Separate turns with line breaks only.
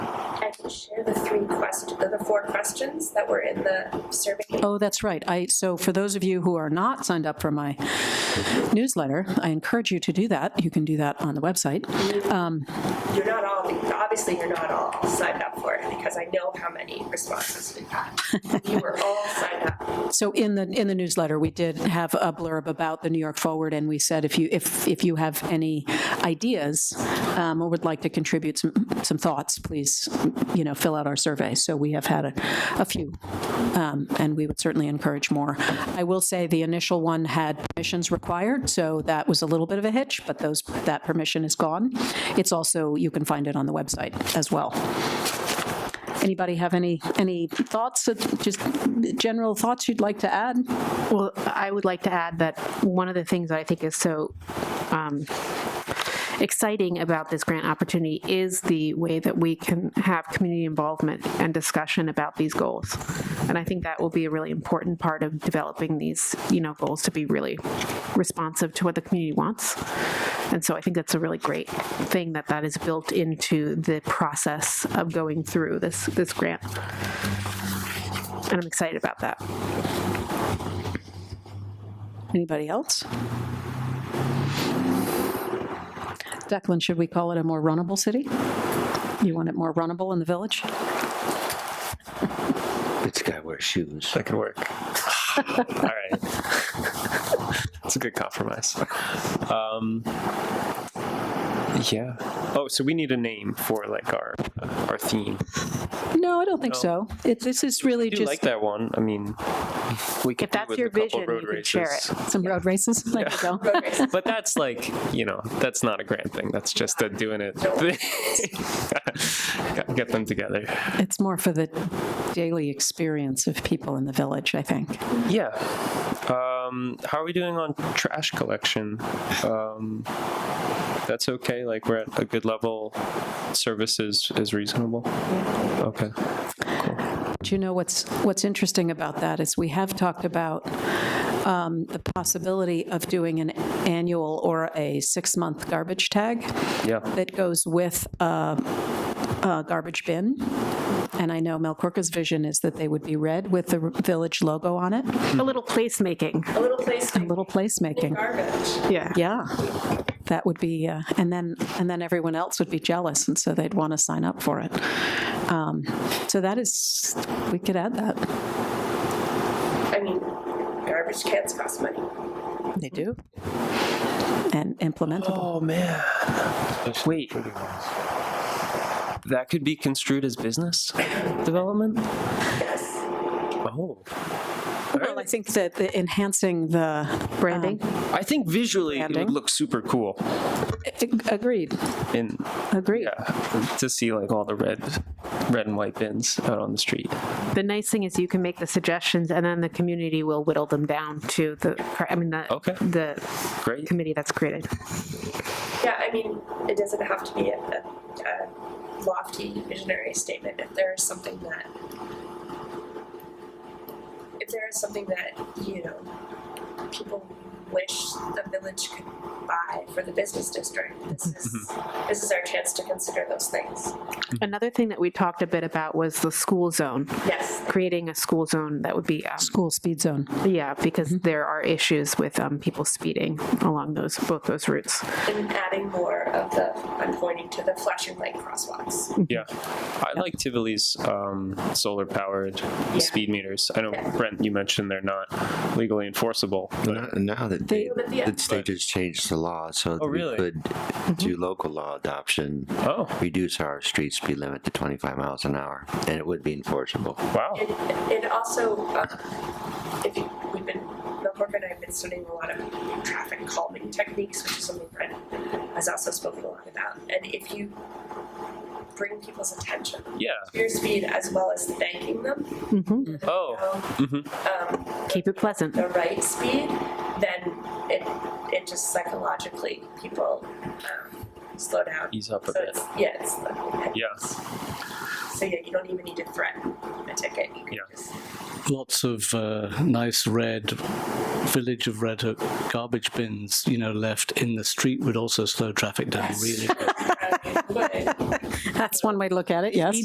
had to share the three questions, the four questions that were in the survey.
Oh, that's right. I, so for those of you who are not signed up for my newsletter, I encourage you to do that. You can do that on the website. Um,
You're not all, obviously, you're not all signed up for it because I know how many responses we got. You were all signed up.
So in the, in the newsletter, we did have a blurb about the New York Forward, and we said if you, if, if you have any ideas um, or would like to contribute some, some thoughts, please, you know, fill out our survey. So we have had a, a few, um, and we would certainly encourage more. I will say the initial one had permissions required, so that was a little bit of a hitch, but those, that permission is gone. It's also, you can find it on the website as well. Anybody have any, any thoughts, uh, just general thoughts you'd like to add?
Well, I would like to add that one of the things that I think is so um, exciting about this grant opportunity is the way that we can have community involvement and discussion about these goals. And I think that will be a really important part of developing these, you know, goals to be really responsive to what the community wants. And so I think that's a really great thing that that is built into the process of going through this, this grant. And I'm excited about that.
Anybody else? Declan, should we call it a more runnable city? You want it more runnable in the village?
This guy wears shoes.
That could work. All right. It's a good compromise. Um, yeah. Oh, so we need a name for like our our theme.
No, I don't think
No.
so. It, this is really
I do like
just
that one. I mean, we could
If that's
do with
your
a couple
vision,
road
you can
races.
share
some road races. There you go.
Road race.
But that's like, you know, that's not a grant thing. That's just a doing it. Got- Get them together.
It's more for the daily experience of people in the village, I think.
Yeah. Um, how are we doing on trash collection? Um, that's okay. Like we're at a good level. Service is, is reasonable. Okay.
Do you know what's, what's interesting about that is we have talked about um, the possibility of doing an annual or a six-month garbage tag.
Yeah.
that goes with a, a garbage bin. And I know Mel Corca's vision is that they would be red with the village logo on it,
A little placemaking.
A little place
a
to
little placemaking.
garbage.
Yeah.
Yeah, that would be, uh, and then, and then everyone else would be jealous, and so they'd want to sign up for it. Um, So that is, we could add that.
I mean, garbage cans cost money.
They do. And implementable.
Oh man. Wait. That could be construed as business development.
Yes.
Oh.
Well, I think that the enhancing the. um,
Branding?
I think visually it
Branding.
would look super cool.
Agreed,
And
agreed.
yeah, to see like all the red, red and white bins out on the street.
The nice thing is you can make the suggestions and then the community will whittle them down to the, cor- I mean, the,
Okay.
the
Great.
committee that's created.
Yeah, I mean, it doesn't have to be a, a, a lofty visionary statement. If there is something that, if there is something that you know, people wish the village could buy for the business district, this is this is our chance to consider those things.
Another thing that we talked a bit about was the school zone,
Yes,
creating a school zone that would be, um,
School speed zone.
yeah, because there are issues with um, people speeding along those, both those routes.
and adding more of the. I'm pointing to the flashing light crosswalks.
Yeah, I like Tivoli's um, solar powered speed meters. I know Brent, you mentioned they're not legally enforceable. But
Not, now that they,
But the-
the state has changed the law, so that
Oh, really?
we could do local law adoption,
oh
reduce our street speed limit to 25 miles an hour, and it would be enforceable.
wow,
And, and also, um, if you, we've been, Bill Cork and I have been studying a lot of traffic calming techniques, which is something Brent has also spoken a lot about. And if you bring people's attention to
yeah.
your speed as well as thanking them,
Mhm.
Oh,
um,
mhm.
Keep it pleasant.
the right speed, then it it just psychologically people um, slow down.
ease up a
So
bit.
it's, yeah, it's the,
Yeah,
so yeah, you don't even need to threaten a ticket. You can
Yeah.
just
lots of uh, nice red village of red hook garbage bins you know left in the street would also slow traffic down really
uh, but-
That's one way to look at it, yes.